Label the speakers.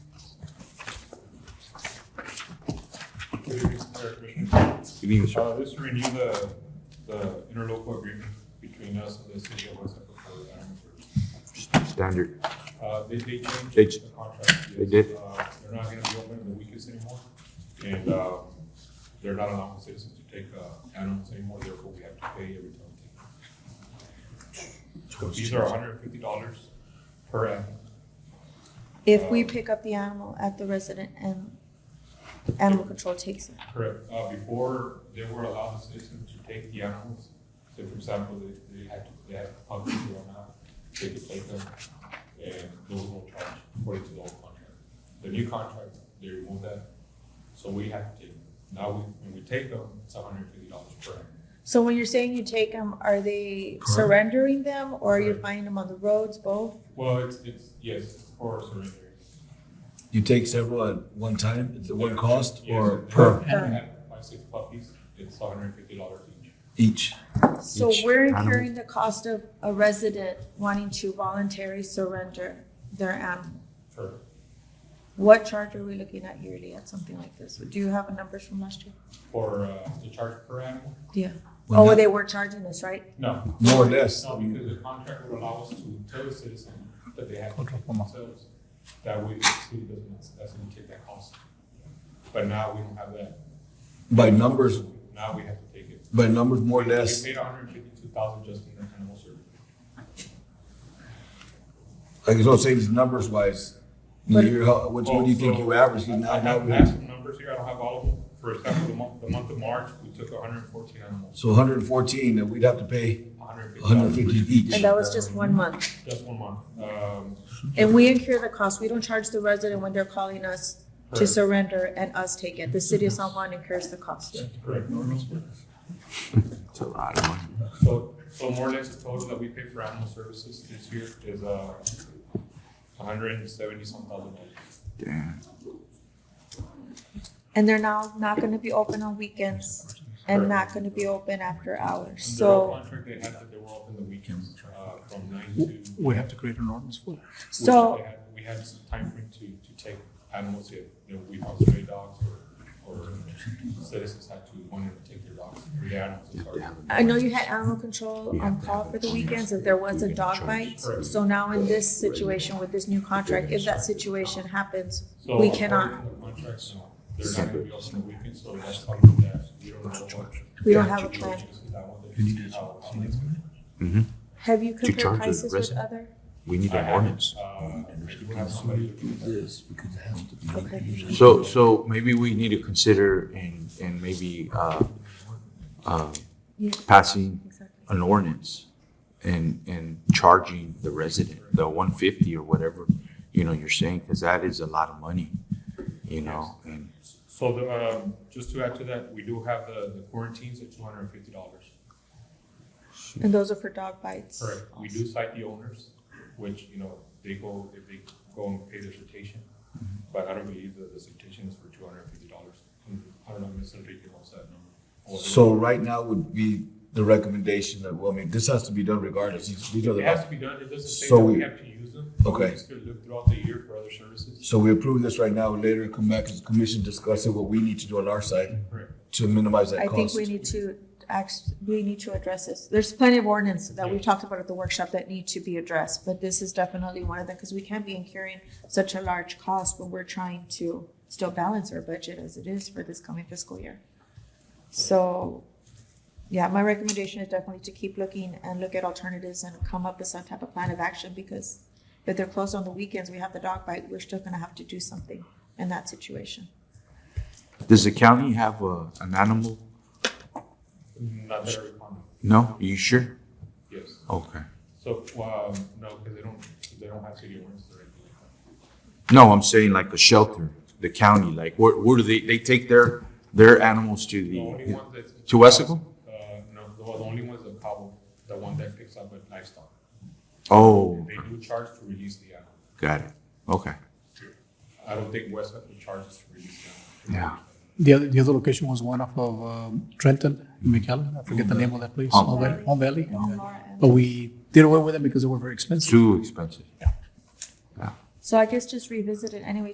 Speaker 1: Commissioners, or Commissioner Jones.
Speaker 2: Good evening, sir.
Speaker 1: Uh, this to renew the, the interlocal agreement between us and the city of West Africa for retirement.
Speaker 2: Standard.
Speaker 1: Uh, they, they
Speaker 2: They
Speaker 1: changed
Speaker 2: ch-
Speaker 1: the contract.
Speaker 2: they
Speaker 1: yes.
Speaker 2: did.
Speaker 1: Uh, They're not gonna be open in the weekends anymore, and, uh, they're not allowing citizens to take, uh, animals anymore, therefore we have to pay every time. we take them. So These are hundred and fifty dollars per animal.
Speaker 3: If we pick up the animal at the resident and animal control takes it.
Speaker 1: Correct. Uh, before they were allowed the citizens to take the animals, so for example, they, they had, to- they had puppies who were out, they could take them, and there was no charge according to the old contract. The new contract, they removed that, so we have to take them. Now, we, when we take them, it's hundred and fifty dollars per animal.
Speaker 3: So when you're saying you take them, are they
Speaker 4: Correct.
Speaker 3: surrendering them or you're
Speaker 1: Correct.
Speaker 3: finding them on the roads, both?
Speaker 1: Well, it's, it's, yes, for surrendering.
Speaker 4: You take several at one time, is it one cost
Speaker 1: Yes,
Speaker 4: or
Speaker 1: if they
Speaker 4: per
Speaker 1: have- have Five, six puppies, it's hundred and fifty dollars each.
Speaker 4: each?
Speaker 3: So
Speaker 2: Each
Speaker 3: we're
Speaker 2: animal.
Speaker 3: incurring the cost of a resident wanting to voluntarily surrender their animal.
Speaker 1: Correct.
Speaker 3: What charge are we looking at yearly at something like this? Do you have numbers from last year?
Speaker 1: For, uh, the charge per animal?
Speaker 3: Yeah.
Speaker 4: Well,
Speaker 3: Oh,
Speaker 4: not-
Speaker 3: they were charging us, right?
Speaker 1: No,
Speaker 4: More or less.
Speaker 1: No, because the contract would allow us to tell the citizen that they have to take themselves, that we, the city doesn't, doesn't take that cost. But now we don't have that.
Speaker 4: By numbers,
Speaker 1: Now we have to take it.
Speaker 4: by numbers, more or less,
Speaker 1: We paid hundred and fifty-two thousand just in the animal service.
Speaker 4: like I was saying, these numbers wise,
Speaker 3: But-
Speaker 4: you're, how- what, what do you think you average?
Speaker 1: I
Speaker 4: Now,
Speaker 1: I
Speaker 4: now,
Speaker 1: have, I
Speaker 4: we-
Speaker 1: have some numbers here, I don't have all of them. For example, the month, the month of March, we took hundred and fourteen animals,
Speaker 4: so hundred and fourteen, and we'd have to pay
Speaker 1: hundred and
Speaker 4: hundred and
Speaker 1: fifty
Speaker 4: fifty each.
Speaker 3: And that was just one month.
Speaker 1: just one month. Um,
Speaker 3: And we incur the cost. We don't charge the resident when they're calling us to
Speaker 1: Correct.
Speaker 3: surrender and us take it. The city of San Juan incurs the cost.
Speaker 1: correct.
Speaker 2: It's a lot of money.
Speaker 1: So, so more or less the total that we pay for animal services this year is, uh, hundred and seventy some thousand dollars.
Speaker 2: Damn.
Speaker 3: And they're now not gonna be open on weekends and not gonna be open after hours.
Speaker 1: Under our
Speaker 3: So,
Speaker 1: contract, they had that they were open the weekends, uh, from nine to. which
Speaker 5: We have to create an ordinance for that.
Speaker 3: so
Speaker 1: they had- We had some time frame to, to take animals, if, you know, we have stray dogs or, or citizens had to, wanted to take their dogs, free animals. as far as-
Speaker 2: Yeah.
Speaker 3: I know you had animal control on call for the weekends if there was a dog bite. So now in this situation with this new contract, if that situation happens,
Speaker 1: So
Speaker 3: we
Speaker 1: according
Speaker 3: cannot,
Speaker 1: to the Contracts, no, they're not gonna be open the weekends, so that's something that we don't know. what-
Speaker 3: we don't have a plan.
Speaker 1: That one, they just see how- how things go.
Speaker 2: Mm-hmm.
Speaker 3: Have you
Speaker 2: charge the
Speaker 3: compared prices with
Speaker 2: resident?
Speaker 3: other?
Speaker 2: We need
Speaker 1: I
Speaker 2: an
Speaker 1: have,
Speaker 2: ordinance.
Speaker 1: uh, I do have somebody looking at that.
Speaker 3: Okay.
Speaker 2: So, so maybe we need to consider and, and maybe, uh, uh,
Speaker 3: Yeah,
Speaker 2: passing
Speaker 3: exactly.
Speaker 2: an ordinance and, and charging the resident, the one fifty or whatever, you know, you're saying, because that is a lot of money, you know, and
Speaker 1: So the, um, just to add to that, we do have the, the quarantines at two hundred and fifty dollars.
Speaker 3: And those are for dog bites.
Speaker 1: Correct. We do cite the owners, which, you know, they go, if they go and pay their citation, but I don't believe that the citation is for two hundred and fifty dollars. I don't know, Mr. Enrique knows that number. Or-
Speaker 4: So right now would be the recommendation that, well, I mean, this has to be done regardless. These- These are
Speaker 1: It has
Speaker 4: the,
Speaker 1: to be done, it doesn't say
Speaker 4: So
Speaker 1: that we
Speaker 4: we-
Speaker 1: have to use them. but
Speaker 4: Okay.
Speaker 1: We just could look throughout the year for other services.
Speaker 4: so we approve this right now, later come back as commission, discuss it, what we need to do on our side
Speaker 1: Correct.
Speaker 4: to minimize that
Speaker 3: I
Speaker 4: cost.
Speaker 3: think we need to act, we need to address this. There's plenty of ordinance that we talked about at the workshop that need to be addressed, but this is definitely one of them, because we can't be incurring such a large cost when we're trying to still balance our budget as it is for this coming fiscal year. So, yeah, my recommendation is definitely to keep looking and look at alternatives and come up with some type of plan of action, because if they're closed on the weekends, we have the dog bite, we're still gonna have to do something in that situation.
Speaker 2: does the county have a, an animal?
Speaker 1: Not that I recall,
Speaker 2: No? You sure?
Speaker 1: yes.
Speaker 2: Okay.
Speaker 1: So, um, no, because they don't, they don't have city owners directly.
Speaker 2: No, I'm saying like a shelter, the county, like where, where do they, they take their, their animals to
Speaker 1: The only
Speaker 2: the,
Speaker 1: one that's.
Speaker 2: To
Speaker 1: Uh,
Speaker 2: Wesco?
Speaker 1: no, the the only one is the Cabo, the one that picks up with livestock.
Speaker 2: oh,
Speaker 1: They do charge to release the animal.
Speaker 2: got it, okay.
Speaker 1: I don't think Westcliff charges to release the
Speaker 2: Yeah.
Speaker 1: animal.
Speaker 5: The other, the other location was one off of um, Trenton and McAllen. I forget the name of that place.
Speaker 2: Palm
Speaker 5: Palm Valley. Palm Valley.
Speaker 3: Palm Valley.
Speaker 5: But we did away with them because they were very expensive.
Speaker 2: Too expensive.
Speaker 3: So I guess just revisit it anyway,